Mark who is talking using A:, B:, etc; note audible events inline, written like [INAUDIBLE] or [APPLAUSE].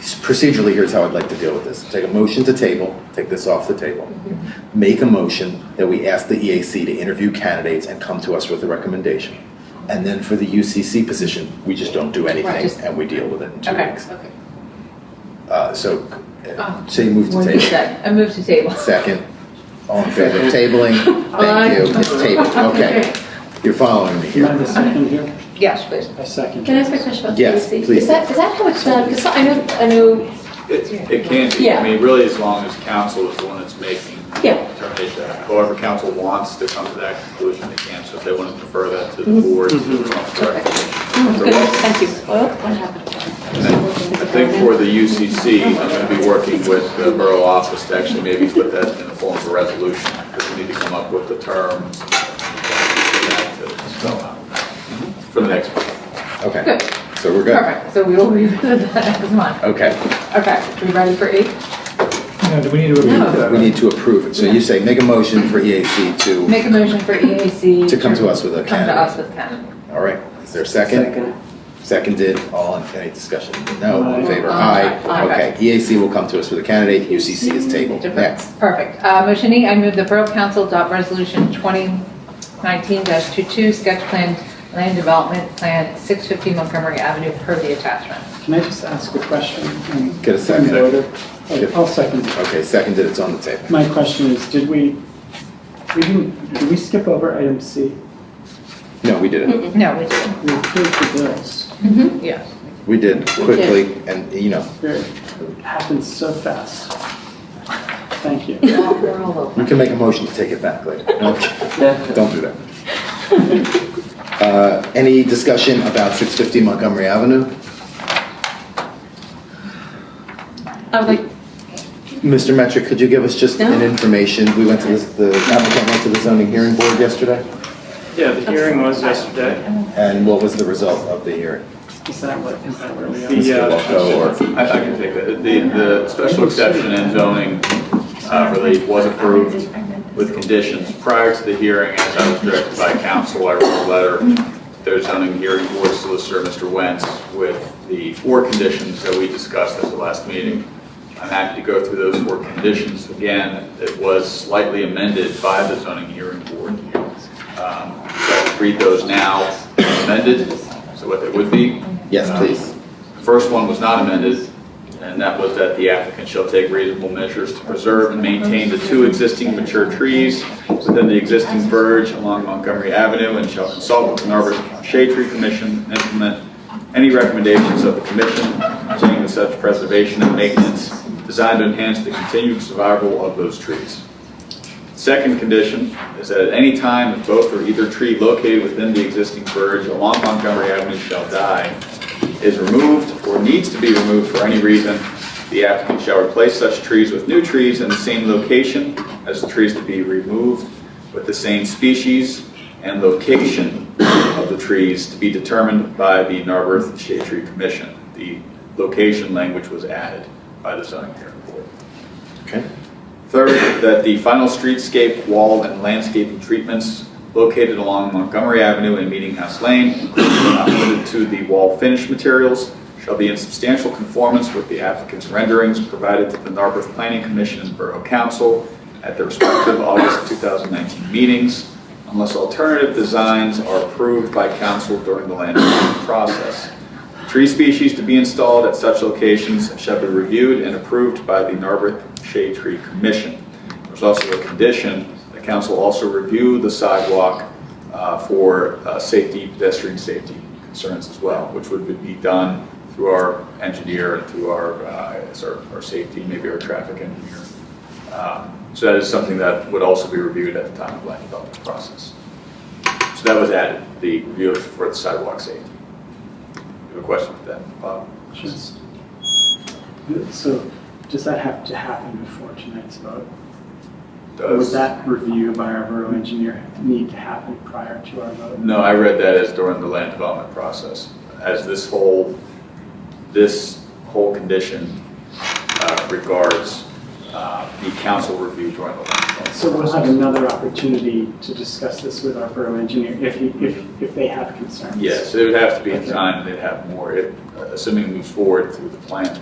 A: procedurally, here's how I'd like to deal with this. Take a motion to table, take this off the table. Make a motion that we ask the EAC to interview candidates and come to us with a recommendation. And then for the UCC position, we just don't do
B: Right,
A: anything
B: just-
A: and we deal with it in two
B: Okay,
A: weeks.
B: okay.
A: Uh, So,
B: Oh.
A: uh, say move to
C: What is
A: table.
C: that? Ah. I move to table.
A: Second, all in favor of tabling?
C: Aye.
A: Thank you, it's
C: [LAUGHS]
A: tabled, okay. You're following me
D: Do you mind a
A: here.
D: second here?
C: Yes, please.
D: A second.
E: Can I ask a question about the
A: Yes,
E: EAC?
A: please.
E: Is that, is that how it's done? Because I know, I know,
F: It, it can be,
E: Yeah.
F: I mean, really as long as council is the one that's making
E: Yeah.
F: the determination. However, council wants to come to that conclusion, they can, so if they want to defer that to
E: Mm-hmm.
F: the board. it's their
D: Mm-hmm.
F: own prerogative.
C: Oh,
F: So
E: good,
F: what-
E: thank you. Well, what happened?
F: and then I think for the UCC, I'm going to be working with the borough office to actually maybe put that in the form of a resolution, because we need to come up with the terms. for that to spell out For the next one.
A: Okay,
C: Good.
A: so we're good.
C: Perfect. So we will revisit [LAUGHS] that next month.
A: Okay,
C: Okay, are we ready for E? eight?
G: Now, do we need to repeat
C: No.
A: we
G: that?
A: need to approve it. So you say make a motion for EAC to,
C: Make a motion for EAC.
A: To come to us with a
C: Come to
A: candidate.
C: us with candidate.
A: all right, is there a second? Seconded, all in, any discussion? No, all in favor?
C: Aye.
A: Aye. Mm-hmm.
C: Aye.
A: Okay, EAC will come to us with a candidate, UCC is tabled. Next,
C: Perfect. Uh, Motion E, I move the Borough Council adopt Resolution 2019-22, Sketch Plan Land Development Plan, 650 Montgomery Avenue, per the attachment.
D: Can I just ask a question? um,
A: Get a second.
D: in order? Oh, I'll second.
A: okay, seconded, it's on the table.
D: My question is, did we, we didn't, did we skip over item C?
A: No, we did it.
C: No, we did.
D: We approved the bills.
C: Yes.
A: We did quickly and, you know,
D: There- It happened so fast. Thank you.
C: We're all over.
A: you can make a motion to take it back [LAUGHS] later. Okay, Don't [LAUGHS] do that. Uh, Any discussion about 650 Montgomery Avenue?
E: I would like,
A: Mr. Metrick, could you give us just an
E: No.
A: information? We went to this, the applicant went to the zoning hearing board yesterday,
H: Yeah, the hearing was yesterday.
A: and what was the result of the hearing?
D: Is that what, is that where we are?
H: The, uh,
A: Walko or-
F: I, I can take that. The, the special exception and zoning uh, relief was approved with conditions. Prior to the hearing, as I was directed by council, I wrote a letter to their zoning hearing board solicitor, Mr. Wentz, with the four conditions that we discussed at the last meeting. I'm happy to go through those four conditions again. It was slightly amended by the zoning hearing board. Um, So I'll read those now amended, so what they would be.
A: Yes, please.
F: The first one was not amended, and that was that the applicant shall take reasonable measures to preserve and maintain the two existing mature trees within the existing verge along Montgomery Avenue and shall consult with the Narberth Shade Tree Commission and implement any recommendations of the commission pertaining to such preservation and maintenance designed to enhance the continued survival of those trees. Second condition is that at any time, if both or either tree located within the existing verge along Montgomery Avenue shall die, is removed or needs to be removed for any reason, the applicant shall replace such trees with new trees in the same location as the trees to be removed with the same species and location of the trees to be determined by the Narberth Shade Tree Commission. The location language was added by the zoning board.
A: Okay.
F: Third, that the final streetscape, wall, and landscaping treatments located along Montgomery Avenue and Meeting House Lane, including but not limited to the wall finish materials, shall be in substantial conformance with the applicant's renderings provided to the Narberth Planning Commission and Borough Council at their respective August 2019 meetings, unless alternative designs are approved by council during the land review process. Tree species to be installed at such locations shall be reviewed and approved by the Narberth Shade Tree Commission. There's also a condition, the council also review the sidewalk uh, for uh, safety, pedestrian safety concerns as well, which would be done through our engineer and through our, uh, as our, our safety, maybe our traffic engineer. Um, So that is something that would also be reviewed at the time of land development process. So that was added, the review for the sidewalk safety. You have a question for that, Bob?
D: Just-
H: uh,
D: So does that have to happen before tonight's vote? Or Would
F: Does-
D: that review by our borough engineer need to happen prior to our vote?
F: No, I read that as during the land development process, as this whole, this whole condition uh, regards uh, the council review during the land development.
D: So we'll have another opportunity to discuss this with our borough engineer if, he- if, if they have concerns.
F: Yes, it would have to be in time, they'd have more, if- assuming it moves forward through the plan